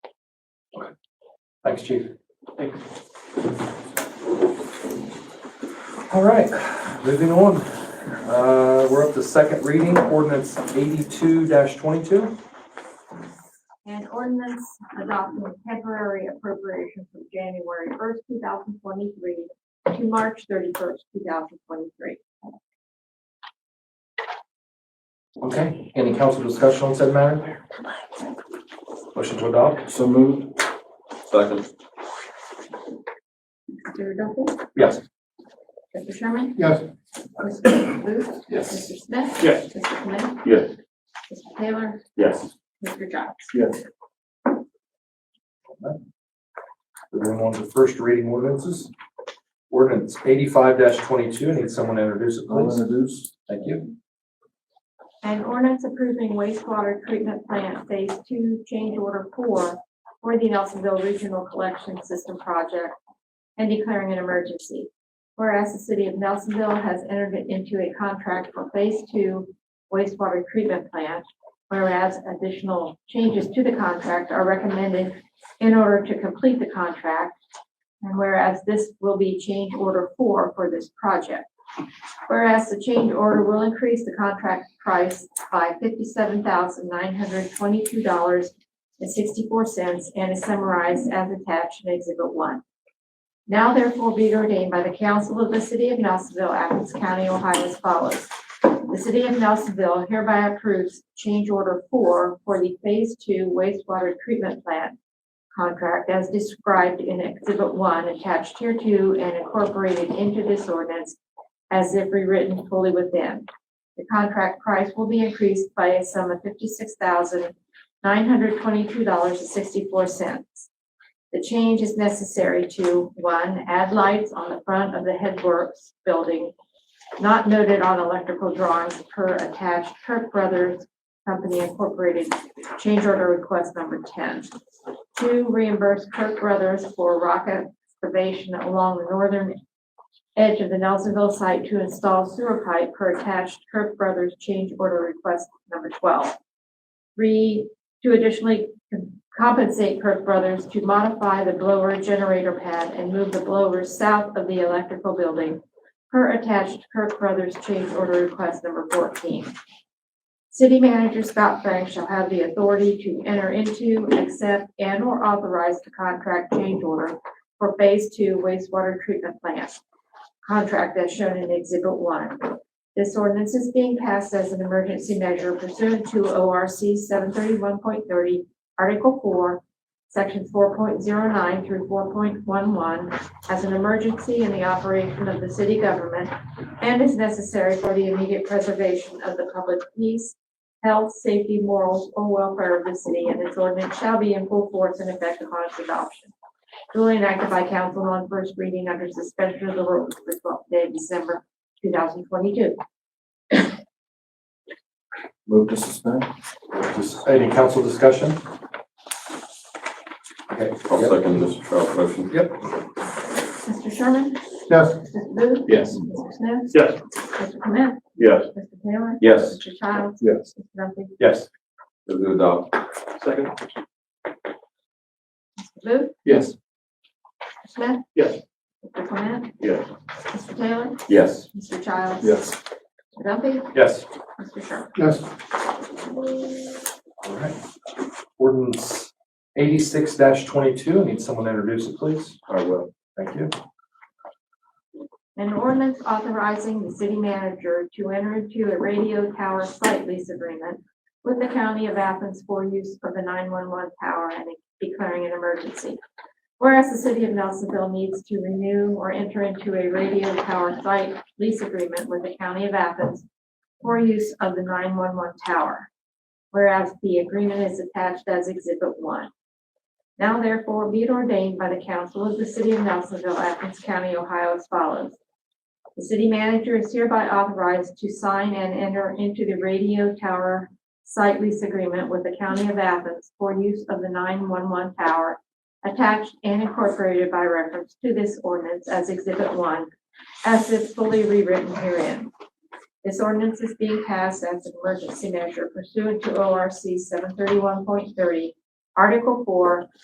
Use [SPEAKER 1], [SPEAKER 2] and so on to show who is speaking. [SPEAKER 1] Thanks, chief. All right, moving on. Uh, We're up to second reading, ordinance eighty-two twenty-two.
[SPEAKER 2] An ordinance adopting a temporary appropriation from January first, two thousand twenty-three to March thirty-first, two thousand twenty-three.
[SPEAKER 1] Okay, any council discussion on said matter? Motion to adopt?
[SPEAKER 3] So moved. Second.
[SPEAKER 2] Mr. Duffy?
[SPEAKER 1] Yes.
[SPEAKER 2] Mr. Sherman?
[SPEAKER 3] Yes.
[SPEAKER 2] Mr. Booth?
[SPEAKER 3] Yes.
[SPEAKER 2] Mr. Smith?
[SPEAKER 3] Yes.
[SPEAKER 2] Mr. Clement?
[SPEAKER 3] Yes.
[SPEAKER 2] Mr. Taylor?
[SPEAKER 3] Yes.
[SPEAKER 2] Mr. Jobs?
[SPEAKER 3] Yes.
[SPEAKER 1] Moving on to first reading ordinances. Ordinance eighty-five twenty-two, need someone to introduce it,
[SPEAKER 3] I'll
[SPEAKER 1] please.
[SPEAKER 3] introduce.
[SPEAKER 1] Thank you.
[SPEAKER 2] An ordinance approving wastewater treatment plant phase two change order four for the Nelsonville Regional Collection System Project and declaring an emergency. Whereas the city of Nelsonville has entered into a contract for phase two wastewater treatment plant, whereas additional changes to the contract are recommended in order to complete the contract, and whereas this will be change order four for this project. Whereas the change order will increase the contract price by fifty-seven thousand nine hundred twenty-two dollars and sixty-four cents and is summarized as attached in Exhibit One. Now therefore be ordained by the Council of the City of Nelsonville, Athens County, Ohio as follows. The City of Nelsonville hereby approves change order four for the Phase Two wastewater treatment plant contract as described in Exhibit One attached hereto and incorporated into this ordinance as if rewritten fully within. The contract price will be increased by a sum of fifty-six thousand, nine hundred twenty-two dollars and sixty-four cents. The change is necessary to, one, add lights on the front of the headworks building not noted on electrical drawings per attached Kirk Brothers Company Incorporated change order request number ten. Two, reimburse Kirk Brothers for rock excavation along the northern edge of the Nelsonville site to install sewer pipe per attached Kirk Brothers change order request number twelve. Three, to additionally compensate Kirk Brothers to modify the blower generator pad and move the blower south of the electrical building per attached Kirk Brothers change order request number fourteen. City manager Scott Frank shall have the authority to enter into, accept, and/or authorize the contract change order for Phase Two wastewater treatment plant contract as shown in Exhibit 1. This ordinance is being passed as an emergency measure pursuant to ORC 731.30, Article 4, Sections 4.09 through 4.11, as an emergency in the operation of the city government and is necessary for the immediate preservation of the public peace, health, safety, morals, or welfare of the city, and this ordinance shall be in full force and effect upon its adoption duly enacted by council on first reading under suspension of the rules for twelfth day of December two thousand twenty-two.
[SPEAKER 3] Move to suspend.
[SPEAKER 1] Just Any council discussion? Okay.
[SPEAKER 4] I'll
[SPEAKER 1] yep.
[SPEAKER 4] second Mr. Trout's motion.
[SPEAKER 2] Mr. Sherman?
[SPEAKER 3] Yes.
[SPEAKER 2] Mr. Booth?
[SPEAKER 3] Yes.
[SPEAKER 2] Mr. Smith?
[SPEAKER 3] Yes.
[SPEAKER 2] Mr. Clement?
[SPEAKER 3] Yes.
[SPEAKER 2] Mr. Taylor?
[SPEAKER 4] Yes.
[SPEAKER 2] Mr. Childs?
[SPEAKER 3] Yes.
[SPEAKER 2] Mr. Duffy?
[SPEAKER 1] Yes.
[SPEAKER 4] Move to adopt.
[SPEAKER 3] Second.
[SPEAKER 2] Mr. Booth?
[SPEAKER 3] Yes.
[SPEAKER 2] Mr. Smith?
[SPEAKER 3] Yes.
[SPEAKER 2] Mr. Clement?
[SPEAKER 3] Yes.
[SPEAKER 2] Mr. Taylor?
[SPEAKER 4] Yes.
[SPEAKER 2] Mr. Childs?
[SPEAKER 3] Yes.
[SPEAKER 2] Mr. Duffy?
[SPEAKER 1] Yes.
[SPEAKER 2] Mr. Sherman?
[SPEAKER 3] Yes.
[SPEAKER 1] All right. Ordinance eighty-six twenty-two, need someone to introduce it, please.
[SPEAKER 4] I will.
[SPEAKER 1] Thank you.
[SPEAKER 2] An ordinance authorizing the city manager to enter into a radio tower site lease agreement with the county of Athens for use of the nine-one-one tower and declaring an emergency. Whereas the city of Nelsonville needs to renew or enter into a radio tower site lease agreement with the county of Athens for use of the nine-one-one tower. Whereas the agreement is attached as exhibit one. Now therefore be it ordained by the council of the city of Nelsonville, Athens County, Ohio as follows. The city manager is hereby authorized to sign and enter into the radio tower site lease agreement with the county of Athens for use of the nine-one-one tower attached and incorporated by reference to this ordinance as exhibit one, as if fully rewritten herein. This ordinance is being passed as an emergency measure pursuant to ORC seven thirty-one point thirty, Article four,